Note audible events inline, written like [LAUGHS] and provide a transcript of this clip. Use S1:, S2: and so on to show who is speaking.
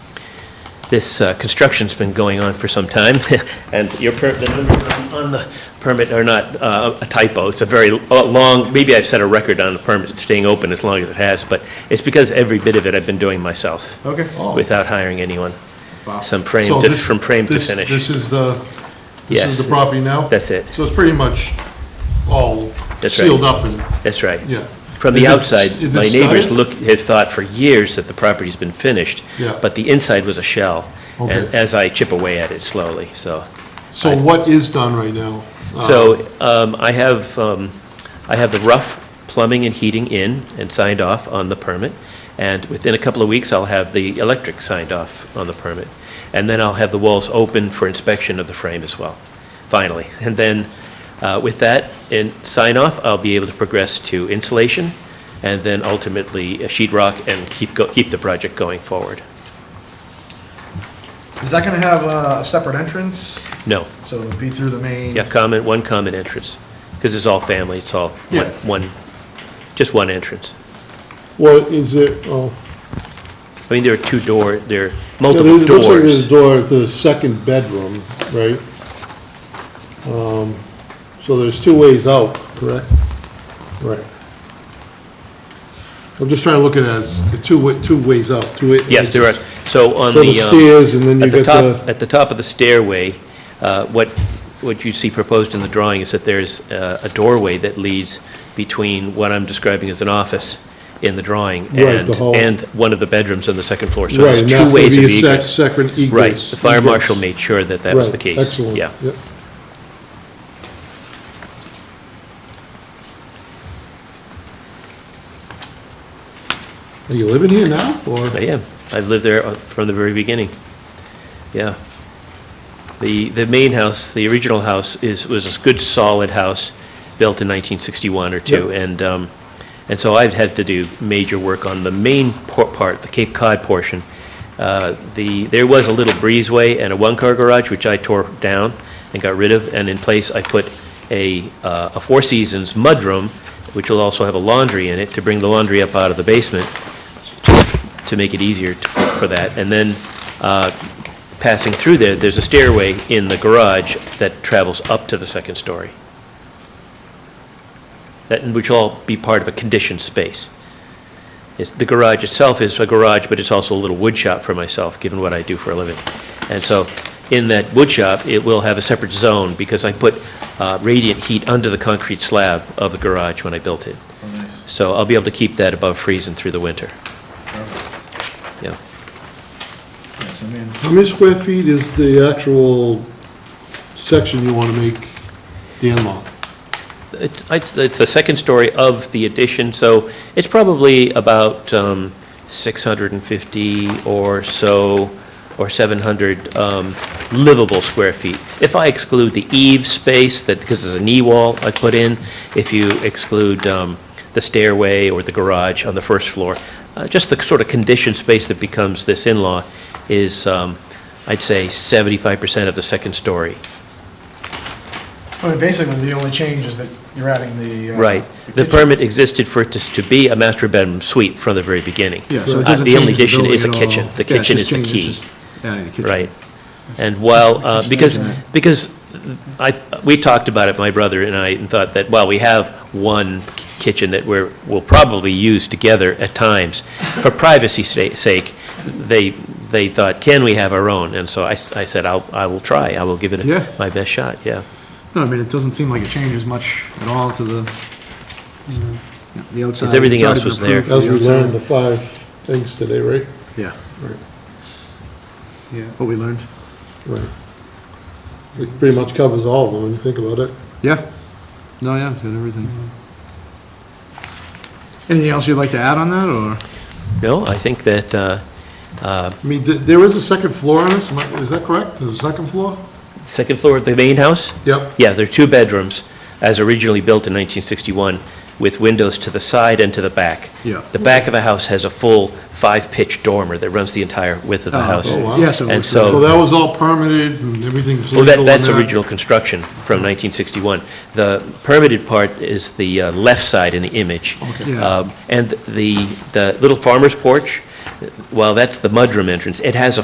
S1: This uh, construction's been going on for some time, [LAUGHS] and your, per- the numbers on- on the permit are not uh, a typo. It's a very lo- long, maybe I've set a record on the permit staying open as long as it has, but it's because every bit of it I've been doing myself
S2: Okay.
S1: without hiring anyone.
S2: Wow.
S1: Some frame,
S3: Oh. So
S1: to-
S3: this-
S1: from frame to
S3: this-
S1: finish.
S3: This is the, this
S1: Yes.
S3: is the property now?
S1: That's it.
S3: So it's pretty much all
S1: That's right.
S3: sealed up and,
S1: That's right.
S3: yeah.
S1: From the
S3: Is it-
S1: outside,
S3: is it
S1: my neighbors
S3: studded?
S1: look, have thought for years that the property's been finished.
S3: Yeah.
S1: But the inside was a shell, and
S3: Okay.
S1: as I chip away at it slowly, so.
S3: So what is done right now? Uh,
S1: So um, I have, um, I have the rough plumbing and heating in and signed off on the permit, and within a couple of weeks, I'll have the electric signed off on the permit. And then I'll have the walls open for inspection of the frame as well, finally. [LAUGHS] And then uh, with that and sign off, I'll be able to progress to insulation, and then ultimately uh, sheet rock and keep, go- keep the project going forward.
S2: Is that gonna have uh, a separate entrance?
S1: No,
S2: So it'll be through the main?
S1: yeah, common, one common entrance, because it's all family, it's all one,
S2: Yeah.
S1: one, just one entrance.
S3: What is it, oh,
S1: I mean, there are two door, there are
S3: yeah, there-
S1: multiple
S3: it looks like there's a
S1: doors.
S3: door to the second bedroom, right? Um, So there's two ways out, correct? Right. I'm just trying to look at it as the two, wa- two ways out, two. wa-
S1: Yes, there are, so on the.
S3: So the
S1: um,
S3: stairs and then you
S1: at
S3: get
S1: top-
S3: the-
S1: At the top of the stairway, uh, what, what you see proposed in the drawing is that there's uh, a doorway that leads between what I'm describing as an office in the drawing
S3: Right, the
S1: and,
S3: hall.
S1: and one of the bedrooms on the second floor. So
S3: Right,
S1: there's
S3: and
S1: two
S3: that's gonna
S1: ways of
S3: be a sec-
S1: egress.
S3: second egress.
S1: Right, the fire
S3: egress.
S1: marshal made sure that that was
S3: Right,
S1: the case.
S3: Excellent.
S1: Yeah.
S3: Yep. Are you living here now, or?
S1: I am. I've lived there uh, from the very beginning. Yeah. The, the main house, the original house is, was a good solid house, built in 1961 or two. And, um, and so I've had to do major work on the main por- part, the Cape Cod portion. Uh, The, there was a little breezeway and a one-car garage, which I tore down and got rid of. And in place, I put a, uh, a Four Seasons mudroom, which will also have a laundry in it, to bring the laundry up out of the basement to make it easier t- for that. And then, uh, passing through there, there's a stairway in the garage that travels up to the second story. That, which will all be part of a conditioned space. It's- The garage itself is a garage, but it's also a little wood shop for myself, given what I do for a living. And so, in that wood shop, it will have a separate zone, because I put uh, radiant heat under the concrete slab of the garage when I built it.
S2: Oh, nice.
S1: So I'll be able to keep that above freezing through the winter,
S2: Perfect.
S1: yeah.
S2: Yes, I mean,
S3: How many square feet is the actual section you want to make the in-law?
S1: It's, it's it's the second story of the addition, so it's probably about um, 650 or so, or 700 um, livable square feet. If I exclude the eave space, that, because there's a knee wall I put in, if you exclude um, the stairway or the garage on the first floor, uh, just the sort of conditioned space that becomes this in-law is, um, I'd say, 75% of the second story.
S2: I mean, basically, the only change is that you're adding the. uh,
S1: Right. The
S2: kitchen.
S1: permit existed for it to to be a master bedroom suite from the very beginning.
S4: Yeah, so
S1: Uh,
S4: it doesn't
S1: The only
S4: change the
S1: addition
S4: building
S1: is a
S4: at all.
S1: kitchen. The
S4: Yeah, it's
S1: kitchen is
S4: just
S1: the
S4: changing-
S1: key,
S4: it's just Adding the kitchen.
S1: right? And while, uh, because,
S4: Kitchen.
S1: because I, we talked about it, my brother and I, and thought that, well, we have one kitchen that we're, we'll probably use together at times. For privacy's sa- sake, they, they thought, can we have our own? And so I, s- I said, I'll, I will try. I will give it
S4: Yeah.
S1: a- my best shot, yeah.
S4: No, I mean, it doesn't seem like it changes much at all to the, you know, the outside.
S1: Because everything
S4: It's
S1: else
S4: already been
S1: was there.
S4: approved for
S3: As
S4: the
S3: we
S4: outside.
S3: learned the five things today, right?
S4: Yeah,
S3: Right.
S4: yeah, what we learned.
S3: Right. It pretty much covers all of them when you think about it.
S4: Yeah, no, yeah, it's got everything.
S2: Mm-hmm.
S4: Anything else you'd like to add on that, or?
S1: No, I think that, uh, uh,
S3: I mean, th- there is a second floor on this, am I- is that correct? There's a second floor?
S1: second floor of the main house?
S3: Yep.
S1: Yeah, there are two bedrooms, as originally built in 1961, with windows to the side and to the back.
S4: Yeah.
S1: The back of the house has a full five-pitch dormer that runs the entire width of the
S4: Oh,
S1: house.
S4: okay.
S3: wow.
S4: Yeah, so.
S1: And
S4: it's-
S1: so-
S3: So that was all permitted and everything's
S1: Well,
S3: legal
S1: that,
S3: and
S1: that's
S3: that?
S1: original construction from 1961. The permitted part is the uh, left side in the image.
S4: Okay. Yeah.
S1: Um, And the, the little farmer's porch, while that's the mudroom entrance, it has a